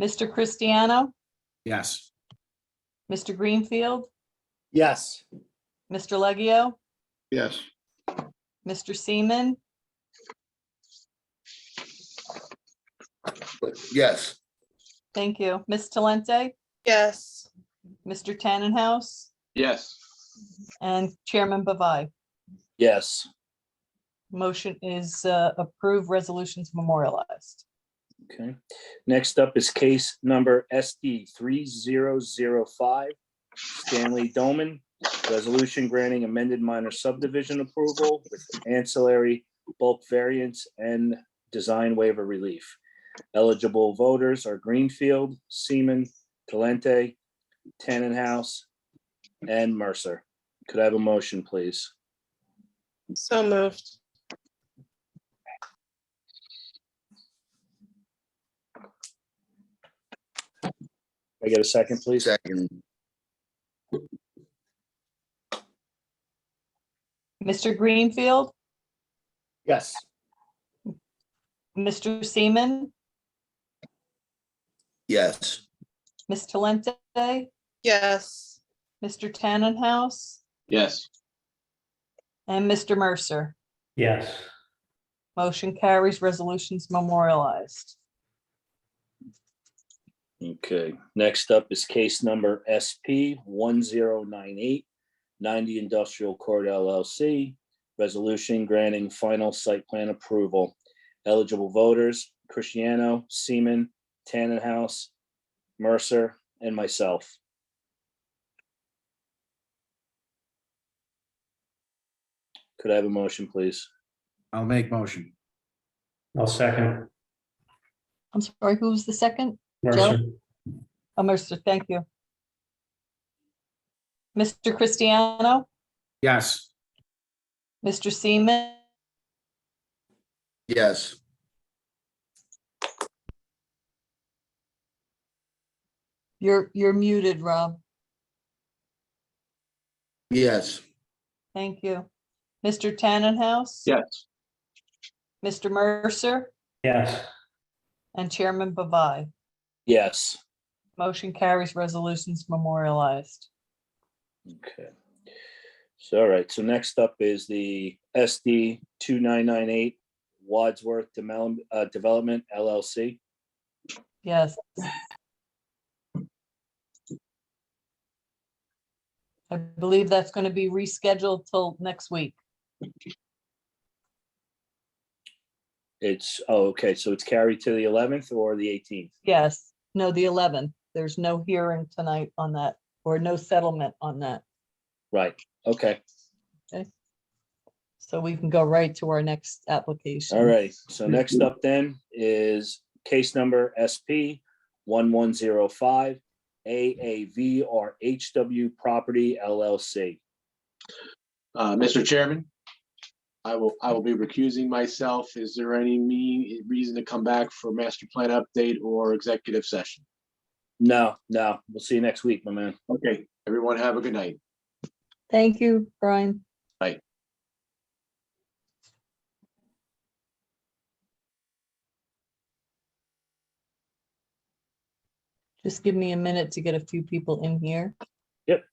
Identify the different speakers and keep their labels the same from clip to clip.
Speaker 1: Mr. Cristiano,
Speaker 2: Yes.
Speaker 1: Mr. Greenfield,
Speaker 3: Yes.
Speaker 1: Mr. Leggio,
Speaker 2: Yes.
Speaker 1: Mr. Seaman,
Speaker 2: Yes.
Speaker 1: thank you. Ms. Talente,
Speaker 4: yes,
Speaker 1: Mr. Tannenhouse,
Speaker 2: Yes.
Speaker 1: and Chairman Bavai.
Speaker 3: Yes.
Speaker 1: Motion is uh, approved, resolutions memorialized.
Speaker 3: Okay. Next up is case number SD three zero zero five. Stanley Doman, resolution granting amended minor subdivision approval with ancillary bulk variance and design waiver relief. Eligible voters are Greenfield, Seaman, Talente, Tannenhouse, and Mercer. Could I have a motion, please?
Speaker 4: so moved,
Speaker 3: Can I get a second, please?
Speaker 5: Second,
Speaker 1: Mr. Greenfield,
Speaker 3: Yes.
Speaker 1: Mr. Seaman,
Speaker 5: yes,
Speaker 1: Ms. Talente,
Speaker 4: yes,
Speaker 1: Mr. Tannenhouse,
Speaker 2: Yes.
Speaker 1: and Mr. Mercer.
Speaker 6: yes,
Speaker 1: Motion carries, resolutions memorialized.
Speaker 3: Okay, next up is case number SP 1098, 90 Industrial Court LLC. Resolution granting final site plan approval. Eligible voters, Cristiano, Seaman, Tannenhouse, Mercer, and myself. Could I have a motion, please?
Speaker 2: I'll make motion.
Speaker 6: I'll second.
Speaker 1: I'm sorry, who was the second?
Speaker 6: Mercer,
Speaker 1: Oh, Mercer, thank you. Mr. Cristiano,
Speaker 2: Yes.
Speaker 1: Mr. Seaman,
Speaker 5: yes,
Speaker 1: you're, you're muted, Rob.
Speaker 5: yes,
Speaker 1: Thank you. Mr. Tannenhouse?
Speaker 2: Yes.
Speaker 1: Mr. Mercer
Speaker 6: yes,
Speaker 1: and Chairman Bavai.
Speaker 3: Yes.
Speaker 1: Motion carries, resolutions memorialized.
Speaker 3: Okay. So, all right, so next up is the SD two nine nine eight Wadsworth Demel- uh, Development LLC.
Speaker 1: Yes. I believe that's going to be rescheduled till next week.
Speaker 3: It's, oh, okay, so it's carried to the eleventh or the eighteenth?
Speaker 1: Yes, no, the eleventh. There's no hearing tonight on that or no settlement on that.
Speaker 3: Right, okay,
Speaker 1: So we can go right to our next application.
Speaker 3: all right. So next up then is case number SP one one zero five AAVRHW Property LLC.
Speaker 7: Uh, Mr. Chairman, I will, I will be recusing myself. Is there any me, reason to come back for master plan update or executive session?
Speaker 3: No, no, we'll see you next week, my man.
Speaker 7: Okay, everyone have a good night.
Speaker 1: Thank you, Brian. Just give me a minute to get a few people in here.
Speaker 3: Yep.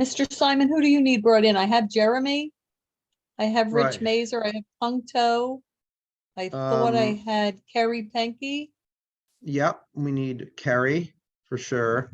Speaker 1: Mr. Simon, who do you need brought in? I have Jeremy. I have Rich
Speaker 2: Right.
Speaker 1: Mazer. I have Pung To. I thought I
Speaker 8: Um,
Speaker 1: had Kerry Penke.
Speaker 8: Yep, we need Carrie for sure.